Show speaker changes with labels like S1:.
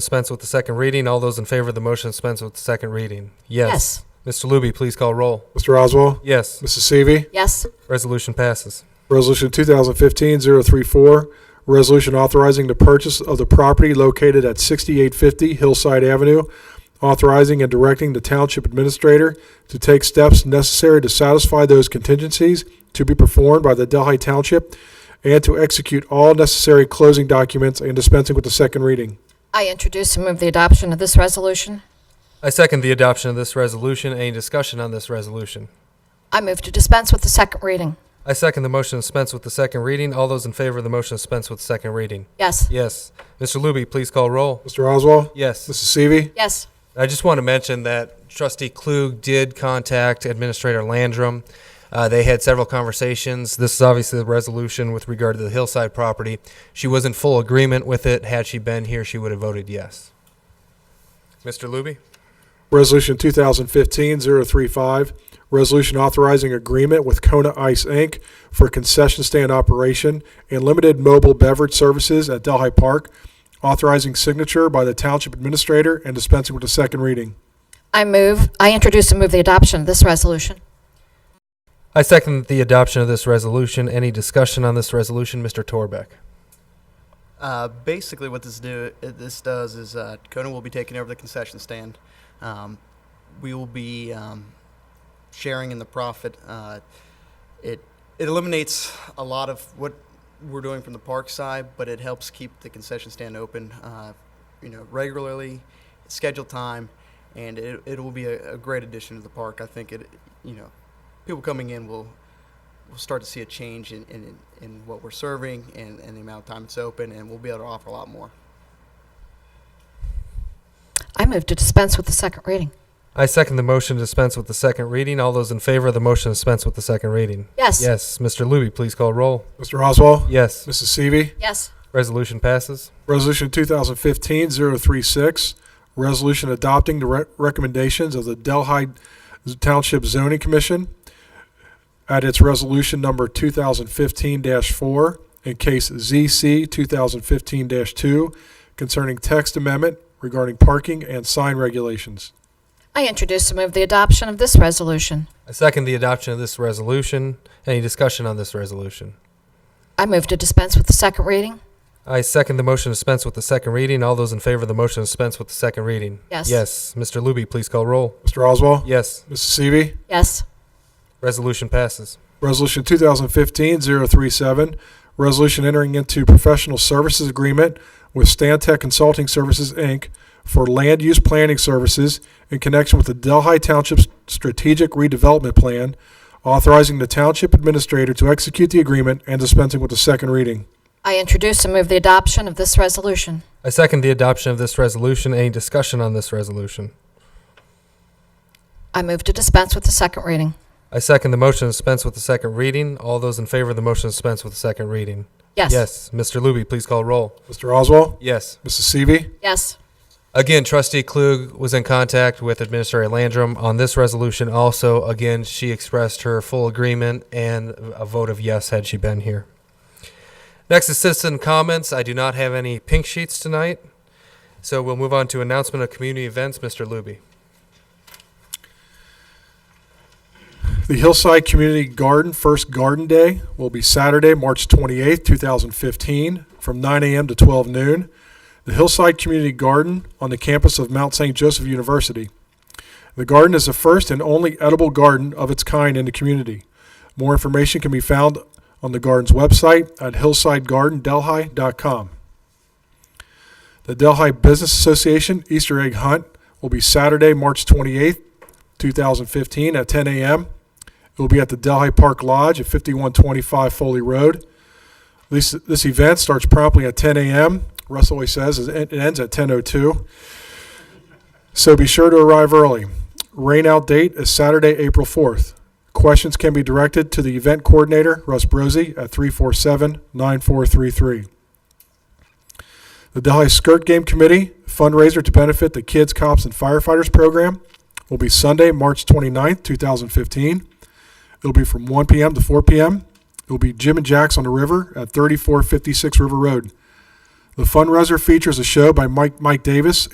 S1: Dispense with the second reading. All those in favor of the motion to dispense with the second reading? Yes. Mr. Luby, please call roll.
S2: Mr. Oswald,
S1: Yes.
S2: Mrs. Seavey.
S3: Yes.
S1: Resolution passes.
S2: Resolution 2015-034, resolution authorizing the purchase of the property located at 6850 Hillside Avenue, authorizing and directing the township administrator to take steps necessary to satisfy those contingencies to be performed by the Delhi Township and to execute all necessary closing documents and dispensing with the second reading.
S3: I introduce and move the adoption of this resolution.
S1: I second the adoption of this resolution. Any discussion on this resolution?
S3: I move to dispense with the second reading.
S1: I second the motion to dispense with the second reading. All those in favor of the motion to dispense with the second reading?
S3: Yes.
S1: Yes. Mr. Luby, please call roll.
S2: Mr. Oswald,
S1: Yes.
S2: Mrs. Seavey.
S3: Yes.
S1: I just want to mention that Trustee Klug did contact Administrator Landrum. Uh, they had several conversations. This is obviously the resolution with regard to the hillside property. She was in full agreement with it. Had she been here, she would have voted yes. Mr. Luby?
S2: Resolution 2015-035, resolution authorizing agreement with Kona Ice, Inc. for concession stand operation and limited mobile beverage services at Delhi Park, authorizing signature by the Township Administrator and dispensing with the second reading.
S3: I move, I introduce and move the adoption of this resolution.
S1: I second the adoption of this resolution. Any discussion on this resolution, Mr. Torbeck?
S4: Uh, basically, what this do uh, this does is uh, Conan will be taking over the concession stand. Um, we will be um, sharing in the profit. Uh, it it eliminates a lot of what we're doing from the park side, but it helps keep the concession stand open, uh, you know, regularly, scheduled time, and it it will be a, a great addition to the park. I think it, you know, people coming in will we'll start to see a change in, in, in what we're serving and, and the amount of time it's open, and we'll be able to offer a lot more.
S3: I move to dispense with the second reading.
S1: I second the motion to dispense with the second reading. All those in favor of the motion to dispense with the second reading?
S3: Yes.
S1: Yes. Mr. Luby, please call roll.
S2: Mr. Oswald,
S1: Yes.
S2: Mrs. Seavey.
S3: Yes.
S1: Resolution passes.
S2: Resolution 2015-036, resolution adopting the re- recommendations of the Delhi Township Zoning Commission at its resolution number 2015-4 in case ZC 2015-2 concerning text amendment regarding parking and sign regulations.
S3: I introduce and move the adoption of this resolution.
S1: I second the adoption of this resolution. Any discussion on this resolution?
S3: I move to dispense with the second reading.
S1: I second the motion to dispense with the second reading. All those in favor of the motion to dispense with the second reading?
S3: Yes.
S1: Yes. Mr. Luby, please call roll.
S2: Mr. Oswald?
S1: Yes.
S2: Mrs. Seavey?
S3: Yes.
S1: Resolution passes.
S2: Resolution 2015-037, resolution entering into professional services agreement with Stantec Consulting Services, Inc. for land use planning services in connection with the Delhi Township's strategic redevelopment plan, authorizing the township administrator to execute the agreement and dispensing with the second reading.
S3: I introduce and move the adoption of this resolution.
S1: I second the adoption of this resolution. Any discussion on this resolution?
S3: I move to dispense with the second reading.
S1: I second the motion to dispense with the second reading. All those in favor of the motion to dispense with the second reading?
S3: Yes.
S1: Yes. Mr. Luby, please call roll.
S2: Mr. Oswald?
S1: Yes.
S2: Mrs. Seavey?
S3: Yes.
S1: Again, Trustee Klug was in contact with Administrator Landrum on this resolution. Also, again, she expressed her full agreement and a vote of yes had she been here. Next is citizen comments. I do not have any pink sheets tonight, so we'll move on to announcement of community events. Mr. Luby.
S2: The Hillside Community Garden First Garden Day will be Saturday, March 28, 2015, from 9 a.m. to 12 noon. The Hillside Community Garden on the campus of Mount St. Joseph University. The garden is the first and only edible garden of its kind in the community. More information can be found on the garden's website at hillsidegardendelhi.com. The Delhi Business Association Easter Egg Hunt will be Saturday, March 28, 2015, at 10 a.m. It will be at the Delhi Park Lodge at 5125 Foley Road. This, this event starts promptly at 10 a.m. Russ always says is- it ends at 10:02. So be sure to arrive early. Rainout date is Saturday, April 4th. Questions can be directed to the event coordinator, Russ Brozzi, at 347-9433. The Delhi Skirt Game Committee fundraiser to benefit the Kids, Cops, and Firefighters program will be Sunday, March 29th, 2015. It'll be from 1 p.m. to 4 p.m. It'll be Jim and Jack's on the River at 3456 River Road. The fundraiser features a show by Mike, Mike Davis